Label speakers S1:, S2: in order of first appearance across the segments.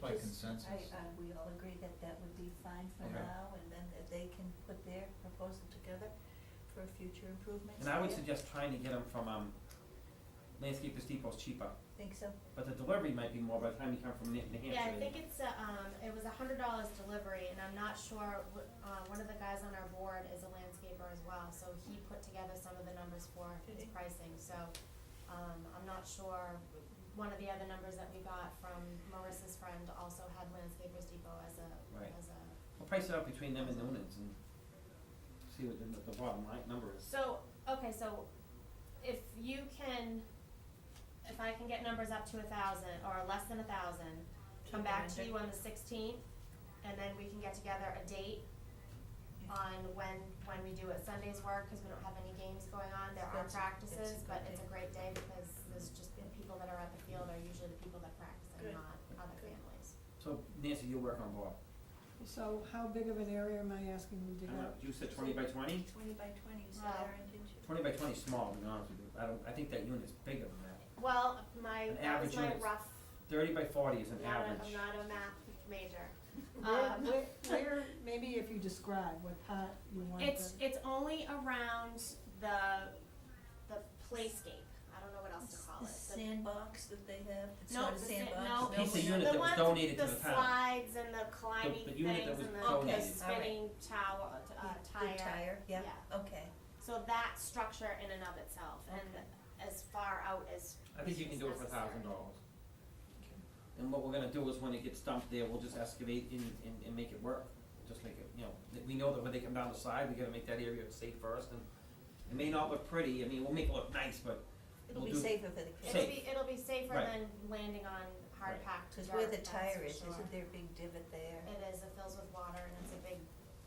S1: by consensus.
S2: I, uh, we all agree that that would be fine for
S1: Okay.
S2: now, and then that they can put their proposal together for future improvements.
S3: And I would
S2: Yeah,
S3: suggest trying to get them from, um, Landscapers Depot's cheaper,
S2: Think so?
S3: but the delivery might be more by the time you come from New New Hampshire.
S4: Yeah, I think it's, uh, um, it was a hundred dollars delivery, and I'm not sure, wh- uh, one of the guys on our board is a landscaper as well, so he put together some of the numbers for his
S2: Did he?
S4: pricing, so, um, I'm not sure, one of the other numbers that we got from Marissa's friend also had Landscapers Depot as a,
S3: Right.
S4: as a.
S3: We'll price it out between them and Noonan's and see what the, the bottom line number is.
S4: So, okay, so if you can, if I can get numbers up to a thousand or less than a thousand, come back to you on the sixteenth, and then we can get together a date on when, when we do it. Sundays work, cause we don't have any games going on, there are
S2: That's-
S4: practices,
S2: that's a
S4: but
S2: good
S4: it's a
S2: day.
S4: great day because there's just, the people that are at the field are usually the people that practice and
S2: Good.
S4: not other
S2: Good.
S4: families.
S3: So Nancy, you'll work on Bob.
S5: So how big of an area am I asking you
S3: I
S5: to
S3: don't
S5: go?
S3: know, Uh, you said twenty by twenty?
S2: Twenty by twenty, you said,
S4: Well,
S2: Erin, didn't you?
S3: Twenty by twenty is small, to be honest with you. I don't, I think that unit's bigger than that.
S4: Well, my,
S3: An
S4: that was
S3: average
S4: my
S3: unit's
S4: rough,
S3: Thirty by forty is an
S4: not a,
S3: average.
S4: I'm not a math major.
S5: Where,
S4: Um,
S5: where, where, maybe if you describe what part you want
S4: It's
S5: to,
S4: it's only around the the playscape. I don't know what else to call
S2: The
S4: it. The-
S2: sandbox that they have, it's
S4: No,
S2: not a
S4: the sa-
S2: sandbox.
S4: no.
S2: it's
S3: Piece of
S2: built in.
S3: unit that was
S4: ones-
S3: donated to the
S4: The
S3: town.
S4: slides and the climbing
S3: The- the
S4: things
S3: unit that was
S4: and the- the
S3: donated.
S4: spinning tower, uh,
S2: Good
S4: tire.
S2: tire, yeah, okay.
S4: So that structure in and of itself
S2: Okay.
S4: and as far out as,
S3: I think you can do it for a thousand dollars. And what we're gonna do is when it gets dumped there, we'll just excavate and, and, and make it work. Just make it, you know, that we know that when they come down the side, we gotta make that area safe first and it may not look pretty, I mean, we'll make it look nice, but
S2: It'll
S3: We'll
S2: be
S3: do-
S2: safer for the
S4: it'll
S2: kids,
S4: be, it'll be safer
S3: Right.
S4: than landing on hard
S3: Right.
S4: packed
S2: cause
S4: dirt,
S2: where the
S4: that's for
S2: tire is,
S4: sure.
S2: isn't there a big divot there?
S4: It is, it fills with water and it's a big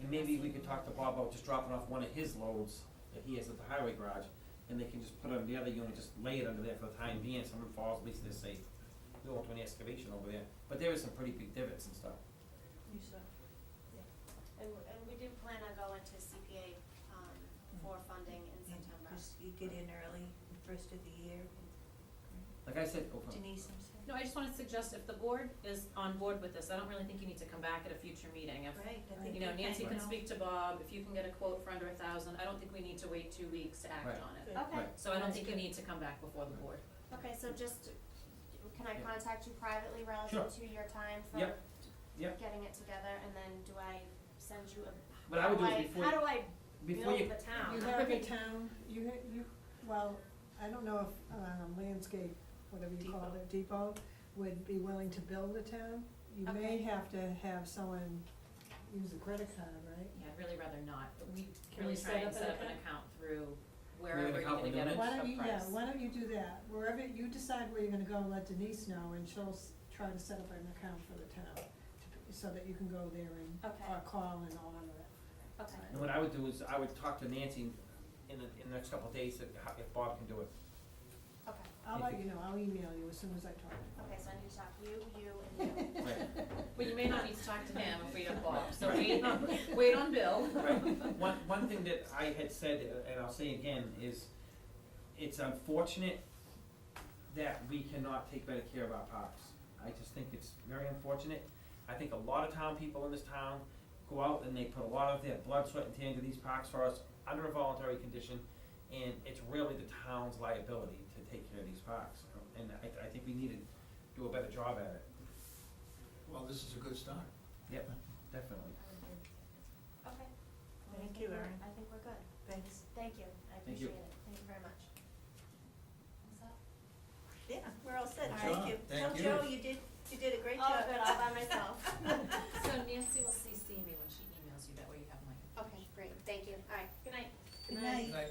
S3: And maybe we could talk to Bob about just dropping off one of his loads that he has at the highway garage, and they can just put it on the other unit, just lay it under there for the time being, someone falls, at least they're safe. We won't do any excavation over there, but there is some pretty big divots and stuff.
S2: You saw.
S4: And, and we do plan on going to CPA, um, for funding in
S2: Yeah,
S4: September.
S2: just you get in early, first of the year,
S3: Like I said, oh,
S2: Denise, I'm sorry.
S6: No, I just wanna suggest if the board is on board with this, I don't really think you need to come back at a future meeting. If,
S2: Right, I think
S6: you know,
S2: we
S6: Nancy
S2: kinda
S6: can
S2: know.
S6: speak to Bob, if you can get a quote for under a thousand, I don't think we need to wait two weeks to act
S3: Right.
S6: on it.
S2: Good.
S4: Okay,
S3: Right.
S6: So I don't think you need to come back before the board.
S4: okay, so just, can I
S3: Yeah.
S4: contact you privately relative to your time for
S3: Yep. Yep.
S4: getting it together, and then do I send you a,
S3: What I
S4: how
S3: would
S4: do
S3: do is
S4: I,
S3: before
S4: how
S3: you-
S4: do I
S3: before you,
S4: build the town?
S5: you have a town, you, ha- you, well, I don't know if, um, landscape, whatever you call it, depot, would be willing to build a town. You may
S4: Okay.
S5: have to have someone use a credit card, right?
S6: Yeah, I'd really rather not, but we
S5: Can
S6: really
S5: we
S6: try
S5: set
S6: and
S5: up
S6: set
S5: an
S6: up an
S5: account?
S6: account through
S3: have an
S6: wherever you're
S3: account
S6: gonna
S3: with
S6: get a a
S3: Lumen?
S5: Why
S6: price.
S5: don't you, yeah, why don't you do that, wherever, you decide where you're gonna go and let Denise know, and she'll s- try to set up an account for the town, to- so that you can go there and,
S4: Okay.
S5: or call and all of that.
S4: Okay,
S3: and what I would do is, I would talk to Nancy in the, in the next couple of days, if, how- if Bob can do it.
S4: okay,
S5: I'll
S3: If
S5: let
S3: you-
S5: you know, I'll email you as soon as I talk
S4: okay,
S5: to
S4: so I need to talk you, you, and you.
S3: Right.
S6: Well, you may not need to talk to him if we don't Bob, so
S3: Right.
S6: wait on, wait on Bill.
S3: Right, one, one thing that I had said, uh, and I'll say again, is it's unfortunate that we cannot take better care of our parks. I just think it's very unfortunate. I think a lot of town people in this town go out and they put a lot of their blood, sweat, and tear into these parks for us under a voluntary condition, and it's really the town's liability to take care of these parks. And I, I think we need to do a better job at it,
S1: Well, this is a good start.
S3: definitely.
S4: Okay. I
S2: Thank
S4: think
S2: you,
S4: we're-
S2: Erin.
S4: I think we're good,
S2: Thanks,
S4: thank you, I
S3: Thank you.
S4: appreciate it, thank you very much. Is that-
S2: yeah, we're all set,
S4: Good
S2: thank
S1: job.
S2: you.
S1: Thank
S2: Tell Joe
S1: you.
S2: you did, you did a great job.
S4: Oh, good, all by myself.
S2: uh,
S6: So Nancy will CC me when she emails you, that way you have my.
S4: Okay, great, thank you, alright, good night.
S2: Good night.
S1: Like,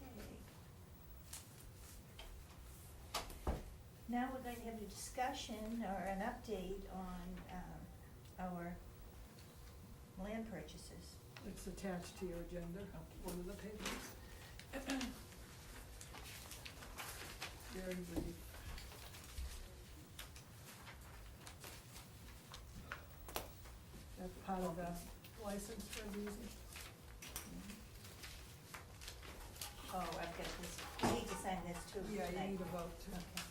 S2: Okay. Now we're going to have a discussion or an update on, um, our land purchases.
S5: you. It's attached to your agenda, one of the papers. Very brief. That's part of the license for reason.
S2: Oh, I've got this, you need to sign this too.
S5: Yeah, you
S2: Thank
S5: need a vote to.
S2: Okay.